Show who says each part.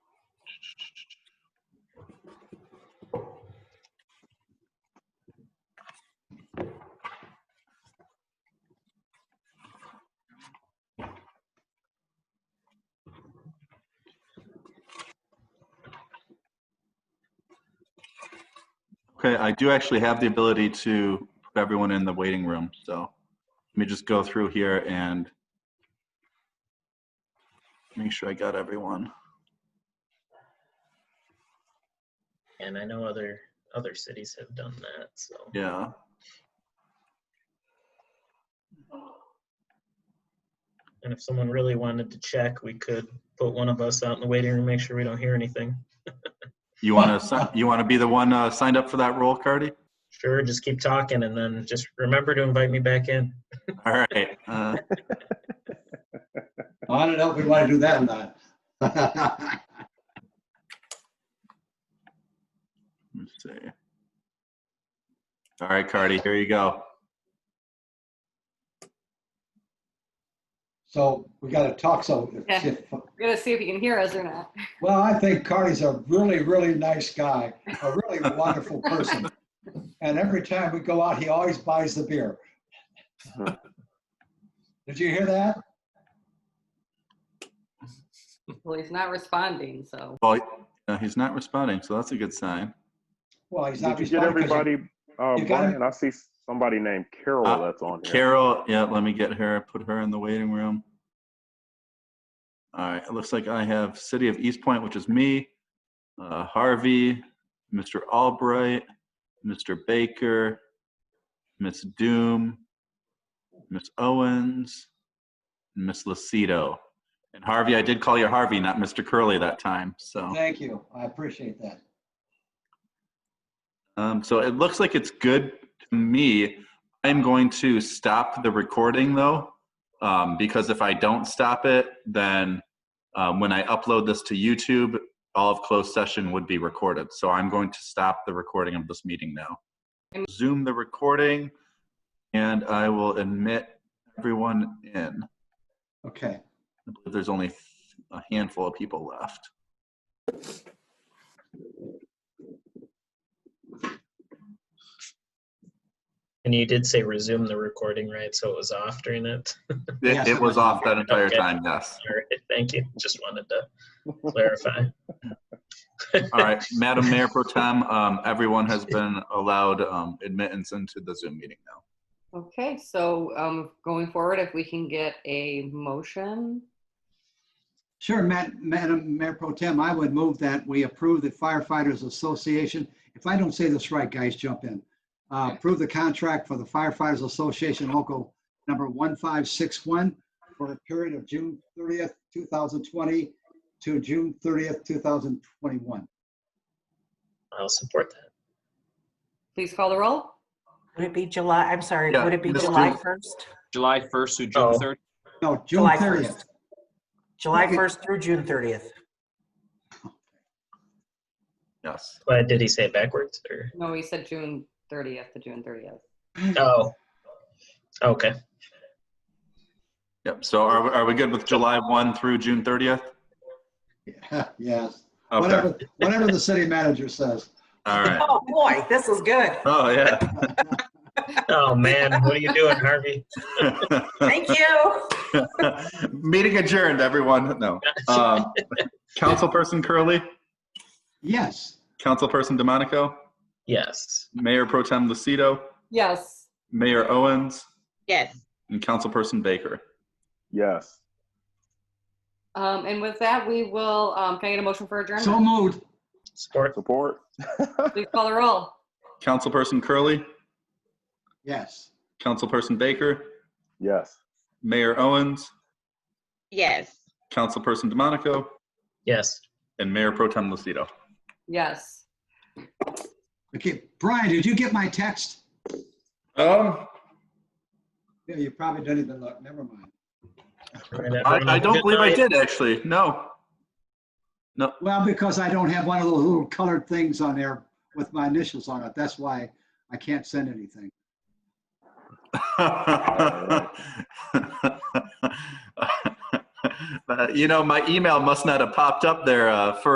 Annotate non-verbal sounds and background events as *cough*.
Speaker 1: Okay, I do actually have the ability to put everyone in the waiting room, so let me just go through here and make sure I got everyone.
Speaker 2: And I know other, other cities have done that, so.
Speaker 1: Yeah.
Speaker 2: And if someone really wanted to check, we could put one of us out in the waiting room, make sure we don't hear anything.
Speaker 1: You want to you want to be the one uh, signed up for that role, Cardi?
Speaker 2: Sure, just keep talking and then just remember to invite me back in.
Speaker 1: All right. Uh,
Speaker 3: I don't know if we want to do that or not. *laughs*
Speaker 1: let's see. All right, Cardi, here you go.
Speaker 3: So we got to talk, so. if-
Speaker 4: Yeah. We're gonna see if you can hear us or not.
Speaker 3: Well, I think Carney's a really, really nice guy, a really wonderful person. And every time we go out, he always buys the beer. Did you hear that?
Speaker 4: Well, he's not responding, so.
Speaker 1: Well, uh, he's not responding, so that's a good sign.
Speaker 3: Well, he's not
Speaker 5: Did you get
Speaker 3: responding. 'cause you-
Speaker 5: everybody? Uh,
Speaker 3: you got it?
Speaker 5: Brian, I see somebody named Carol
Speaker 1: Uh,
Speaker 5: that's on here.
Speaker 1: Carol, yeah, let me get her. Put her in the waiting room. All right. It looks like I have City of East Point, which is me, uh, Harvey, Mr. Albright, Mr. Baker, Miss Doom, Miss Owens, and Miss Lucido. And Harvey, I did call you Harvey, not Mr. Curley that time. So,
Speaker 3: Thank you. I appreciate that.
Speaker 1: um, so it looks like it's good to me. I'm going to stop the recording though, um, because if I don't stop it, then um, when I upload this to YouTube, all of closed session would be recorded. So I'm going to stop the recording of this meeting now.
Speaker 4: And-
Speaker 1: Zoom the recording, and I will admit everyone in.
Speaker 3: Okay.
Speaker 1: I believe there's only a handful of people left.
Speaker 2: And you did say resume the recording, right? So it was off during it.
Speaker 1: It,
Speaker 3: Yes.
Speaker 1: it was off that entire
Speaker 2: Okay.
Speaker 1: time, yes.
Speaker 2: All right, thank you. Just wanted to clarify.
Speaker 1: All right, Madam Mayor Pro Tem, um, everyone has been allowed um, admittance into the Zoom meeting now.
Speaker 4: Okay, so um, going forward, if we can get a motion,
Speaker 3: Sure, Ma- Madam Mayor Pro Tem, I would move that we approve the firefighters association. If I don't say this right, guys, jump in. Uh, Approve the contract for the firefighters association local number 1561 for the period of June 30th, 2020 to June 30th, 2021.
Speaker 2: I'll support that.
Speaker 4: please call the roll.
Speaker 6: Would it be July, I'm sorry,
Speaker 1: Yeah,
Speaker 6: would it be
Speaker 1: let's
Speaker 6: July
Speaker 1: do-
Speaker 6: 1st?
Speaker 7: July 1st through June
Speaker 2: Oh.
Speaker 7: 30th.
Speaker 3: No, June
Speaker 6: July
Speaker 3: 30th.
Speaker 6: 1st. July
Speaker 3: Okay.
Speaker 6: 1st through June 30th.
Speaker 1: Yes.
Speaker 2: Why did he say it backwards or?
Speaker 4: No, he said June 30th to June 30th.
Speaker 2: Oh. Okay.
Speaker 1: Yep, so are, we- are we good with July 1 through June 30th?
Speaker 3: *laughs* Yes,
Speaker 1: Okay,
Speaker 3: whatever, whatever the city manager says.
Speaker 1: all right.
Speaker 6: Oh, boy, this is good.
Speaker 1: Oh, yeah.
Speaker 2: Oh, man, what are you doing, Harvey?
Speaker 6: Thank you.
Speaker 1: *laughs* Meeting adjourned, everyone. No. Um, Councilperson Curley,
Speaker 3: Yes,
Speaker 1: Councilperson DeMonico,
Speaker 2: Yes.
Speaker 1: Mayor Pro Tem Lucido,
Speaker 4: Yes,
Speaker 1: Mayor Owens,
Speaker 8: Yes.
Speaker 1: and Councilperson Baker.
Speaker 5: Yes.
Speaker 4: um, and with that, we will, um, can I get a motion for
Speaker 3: so
Speaker 4: adjournment?
Speaker 3: moved.
Speaker 2: Support.
Speaker 5: Support.
Speaker 4: Please call the roll.
Speaker 1: Councilperson Curley,
Speaker 3: Yes.
Speaker 1: Councilperson Baker,
Speaker 5: Yes.
Speaker 1: Mayor Owens,
Speaker 8: Yes.
Speaker 1: Councilperson DeMonico,
Speaker 2: Yes.
Speaker 1: and Mayor Pro Tem Lucido.
Speaker 4: Yes.
Speaker 3: Okay, Brian, did you get my text?
Speaker 1: Um,
Speaker 3: Yeah, you probably didn't even look, never mind.
Speaker 1: I, I don't believe I did, actually. *laughs* No.
Speaker 3: Well, because I don't have one of those little colored things on there with my initials on it. That's why I can't send anything.
Speaker 1: Uh, you know, my email must not have popped up there uh, for